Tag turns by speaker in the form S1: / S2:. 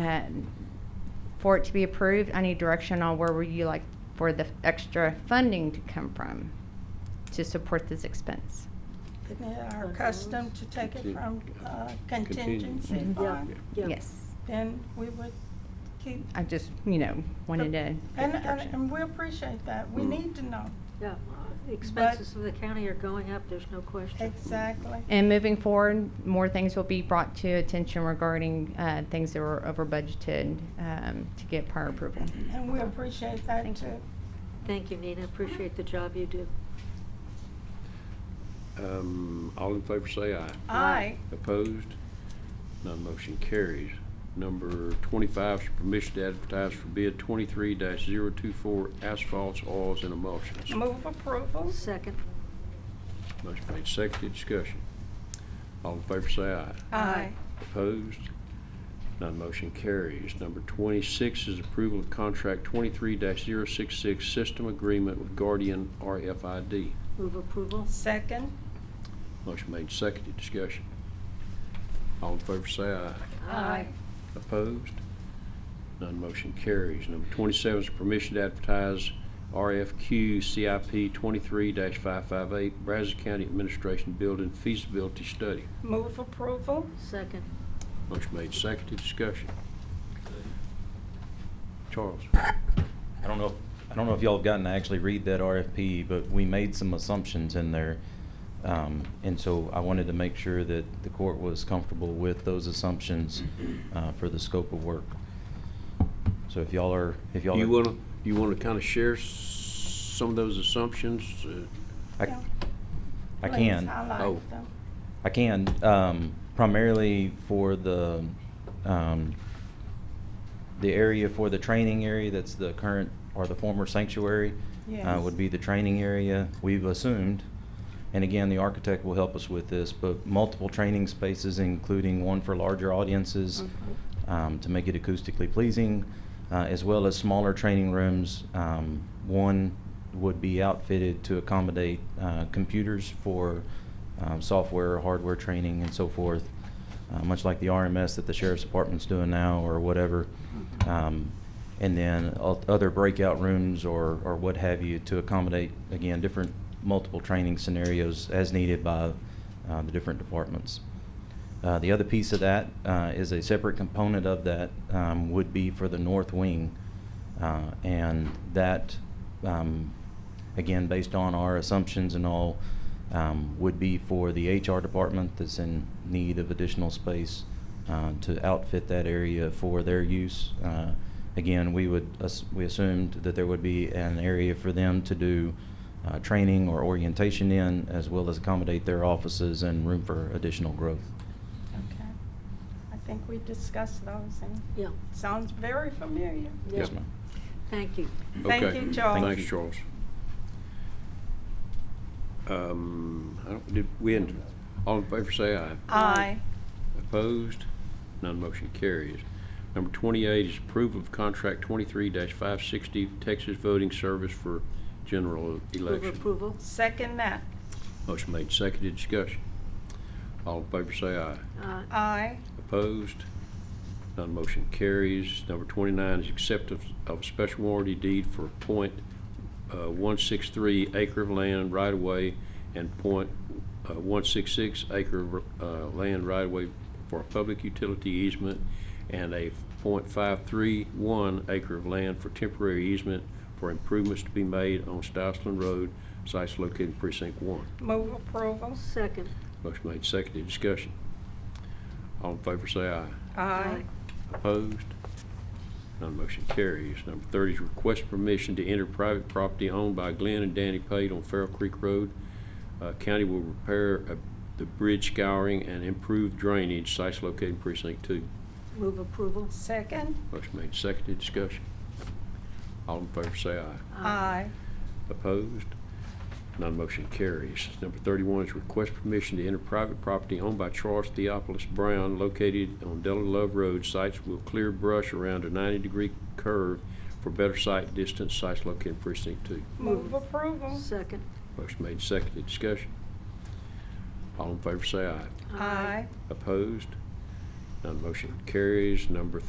S1: um, for it to be approved, I need direction on where would you like for the extra funding to come from to support this expense.
S2: Isn't it our custom to take it from uh, contingency
S3: Contingency.
S1: Yeah.
S2: fund?
S3: Yeah.
S1: Yes,
S2: Then we would keep,
S1: I just, you know, wanted to
S2: Oh, and,
S1: get
S2: and
S1: direction.
S2: and we appreciate that. We
S3: Mm.
S2: need to know
S3: Yeah, expenses of the county are going up, there's no question.
S2: exactly.
S1: And moving forward, more things will be brought to attention regarding uh, things that were over budgeted um, to get prior approval.
S2: And we appreciate that
S1: Thank you.
S2: too.
S3: Thank you, Nina, appreciate the job you do.
S4: Um, all in favor say aye.
S2: Aye.
S4: Opposed? None motion carries. Number twenty-five is permission to advertise for bid twenty-three 24 asphalts, oils, and emulsions.
S2: Move approval.
S3: Second.
S4: Motion made, seconded, discussion. All in favor say aye.
S2: Aye.
S4: Opposed? None motion carries. Number twenty-six is approval of contract twenty-three 66 system agreement with Guardian RFID.
S3: Move approval.
S2: Second.
S4: Motion made, seconded, discussion. All in favor say aye.
S2: Aye.
S4: Opposed? None motion carries. Number 27 is permission to advertise RFQ CIP 23-558 Brazos County Administration Building Feasibility Study.
S2: Move approval.
S3: Second.
S4: Motion made, seconded, discussion. Charles?
S5: I don't know, if- I don't know if y'all have gotten to actually read that RFP, but we made some assumptions in there. Um, and so I wanted to make sure that the court was comfortable with those assumptions, uh, for the scope of work. So if y'all are, if y'all.
S4: You
S5: are-
S4: want to, you want to kind of share s- some of those assumptions? Uh,
S5: I,
S2: Yeah.
S5: I
S2: Please
S5: can.
S4: Oh.
S2: highlight them.
S5: I can, um, primarily for the, um, the area for the training area that's the current or the former sanctuary. uh,
S2: Yes.
S5: would be the training area we've assumed. And again, the architect will help us with this, but multiple training spaces, including one for larger audiences um, to make it acoustically pleasing, uh, as well as smaller training rooms. Um, one would be outfitted to accommodate uh, computers for um, software, hardware training, and so forth, uh, much like the RMS that the sheriff's department's doing now or whatever. Um, and then o- other breakout rooms or, or what have you to accommodate, again, different multiple training scenarios as needed by uh, the different departments. Uh, the other piece of that uh, is a separate component of that um, would be for the north wing, uh, and that, um, again, based on our assumptions and all, um, would be for the HR department that's in need of additional space uh, to outfit that area for their use. Uh, again, we would ass- we assumed that there would be an area for them to do uh, training or orientation in, as well as accommodate their offices and room for additional growth.
S2: Okay. I think we discussed those and
S3: Yeah.
S2: sounds very familiar.
S3: yeah.
S5: Yes, ma'am.
S3: Thank you.
S2: Thank
S4: okay.
S2: you, Charles.
S4: Thanks, Charles. Um, I don't, did, we, hadn't- all in favor say aye.
S2: Aye.
S4: Opposed? None motion carries. Number 28 is approval of contract 23-560 Texas Voting Service for general
S3: Move
S4: election.
S3: approval.
S2: Second that.
S4: Motion made, seconded, discussion. All in favor say aye.
S3: Uh,
S2: Aye.
S4: Opposed? None motion carries. Number 29 is acceptance of a special warranty deed for point, uh, .163 acre of land right of way and point, uh, .166 acre of uh, land right of way for a public utility easement and a .531 acre of land for temporary easement for improvements to be made on Stouseland Road, sites located in precinct 1.
S2: Move approval.
S3: Second.
S4: Motion made, seconded, discussion. All in favor say aye.
S2: Aye.
S4: Opposed? None motion carries. Number 30 is request permission to enter private property owned by Glenn and Danny Pate on Farrell Creek Road. Uh, County will repair uh, the bridge scouring and improve drainage, sites located in precinct two.
S3: Move approval.
S2: Second.
S4: Motion made, seconded, discussion. All in favor say aye.
S2: Aye.
S4: Opposed? None motion carries. Number 31 is request permission to enter private property owned by Charles Theopolis Brown located on Della Love Road. Sites will clear brush around a 90-degree curve for better sight distance. Sites located in precinct 2.
S2: Move approval.
S3: Second.
S4: Motion made, seconded. Discussion. All in favor say aye.
S2: Aye.
S4: Opposed? None motion carries. Number